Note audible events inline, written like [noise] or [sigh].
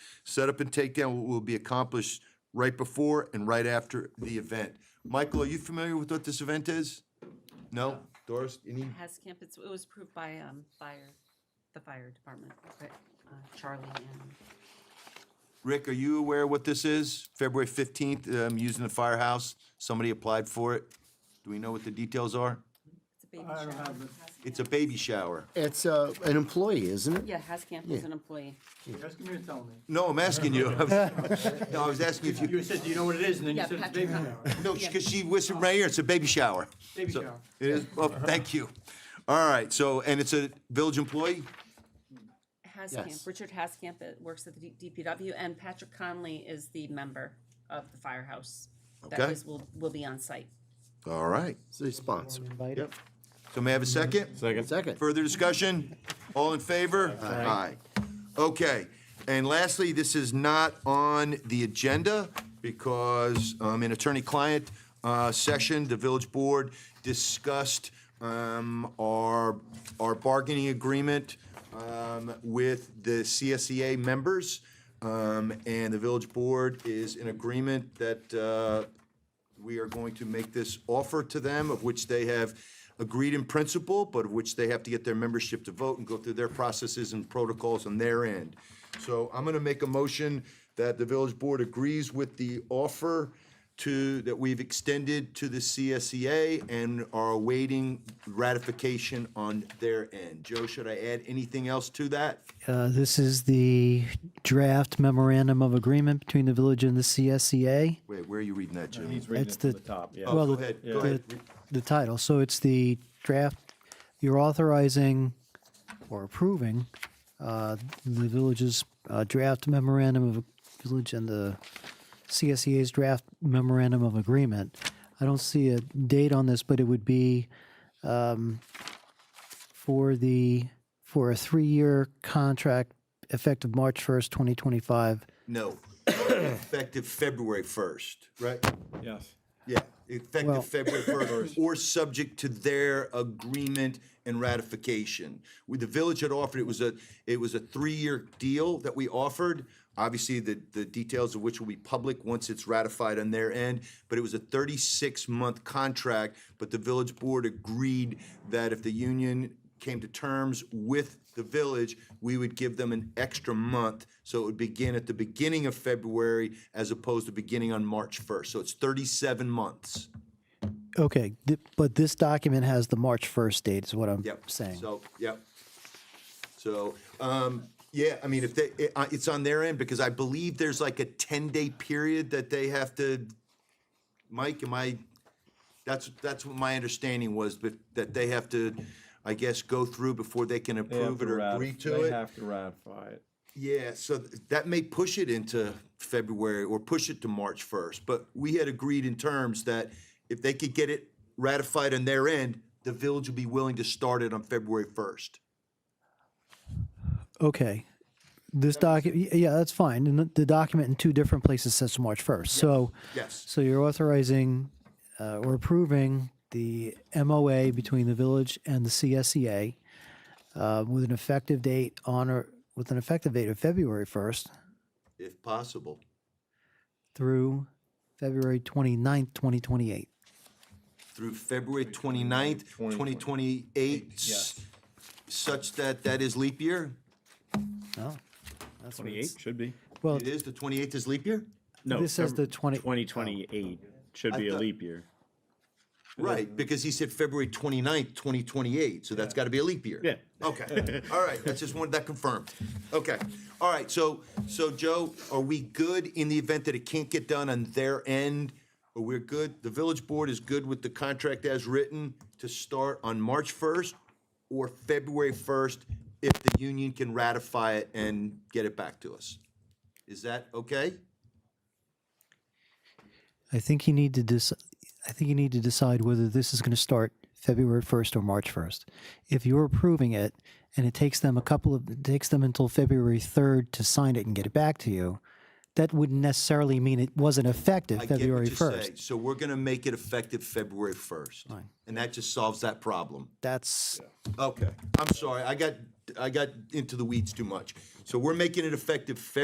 Setup and takedown will be accomplished right before and right after the event. Michael, are you familiar with what this event is? No? Doris, any? Has camp, it's, it was approved by, um, fire, the fire department, but, uh, Charlie and, Rick, are you aware what this is? February 15th, um, using the firehouse, somebody applied for it. Do we know what the details are? it's a baby I don't shower. have it. Has It's a Camp- baby shower. It's uh, an employee, isn't it? Yeah, Has Camp is an employee. Just give me and tell me. No, I'm asking you. [laughs] No, I was asking if you, You said, do you know what it is? And then you Yeah, said it's Patrick. baby shower. no, because she whispered right here, it's a baby shower. Baby So- shower. It is, oh, thank you. All right, so, and it's a village employee? Has Camp, Yes. Richard Has Camp, it works at the D- DPW, and Patrick Conley is the member of the firehouse. That Okay. is, will, will be on site. All right. So he's sponsored. Invited. So may I have a second? Second. Second. Further discussion? All in favor? Aye. Okay, and lastly, this is not on the agenda because um, in attorney-client uh, session, the village board discussed um, our, our bargaining agreement um, with the CSEA members. Um, And the village board is in agreement that uh, we are going to make this offer to them, of which they have agreed in principle, but of which they have to get their membership to vote and go through their processes and protocols on their end. So I'm gonna make a motion that the village board agrees with the offer to, that we've extended to the CSEA and are awaiting ratification on their end. Joe, should I add anything else to that? Uh, This is the draft memorandum of agreement between the village and the E CSEA. Wait, where are you reading that, Joe? He's reading That's it from the- the top, yeah. Well, Oh, go the- ahead, go the- ahead. The title, so it's the draft, you're authorizing or approving uh, the village's uh, draft memorandum of village and the CSEA's draft memorandum of agreement. I don't see a date on this, but it would be um, for the, for a three-year contract effective March 1st, 2025. No, effective February first, right? Yes. Yeah, Well- effective February first, or subject to their agreement and ratification. With the village had offered, it was a, it was a three-year deal that we offered. Obviously, the, the details of which will be public once it's ratified on their end, but it was a thirty-six month contract. But the village board agreed that if the union came to terms with the village, we would give them an extra month. So it would begin at the beginning of February as opposed to beginning on March 1st. So it's 37 months. Okay, th- but this document has the March 1st date, is what I'm Yep. saying. So, yep. So, um, yeah, I mean, if they, it, uh, it's on their end because I believe there's like a 10-day period that they have to, Mike, am I, that's, that's what my understanding was, but that they have to, I guess, go through before they can They have approve it to or ratif- agree to it. They have to ratify it. Yeah, so th- that may push it into February or push it to March 1st, but we had agreed in terms that if they could get it ratified on their end, the village would be willing to start it on February 1st. Okay. This document, yeah, that's fine. And the- the document in two different places says March 1st. So, Yes, so you're authorizing uh, or approving the MOA between the village and the CSEA uh, with an effective date on or with an effective date of February 1st if possible. through February 29th, 2028. Through February 29th, 2028, s- such that that is leap year? Oh, that's what it's- Should be. Well, It is, the 28th is leap year? No. This says the Feb- 20 2028 should be a thought- leap year. Right, because he said February 29th, 2028, so that's got to be a leap year. Yeah. Okay, all right, that's just one, that confirmed. Okay, all right, so, so Joe, are we good in the event that it can't get done on their end? Or we're good, the village board is good with the contract as written to start on March 1st or February 1st if the union can ratify it and get it back to us? Is that okay? I think you need to dec- I think you need to decide whether this is going to start February 1st or March 1st. If you're approving it and it takes them a couple of it takes them until February 3rd to sign it and get it back to you, that wouldn't necessarily mean it wasn't effective I get what February you say. 1st. So we're gonna make it effective February first, and that just solves that problem. That's Okay, I'm sorry, I got, I got into the weeds too much. So we're making it effective February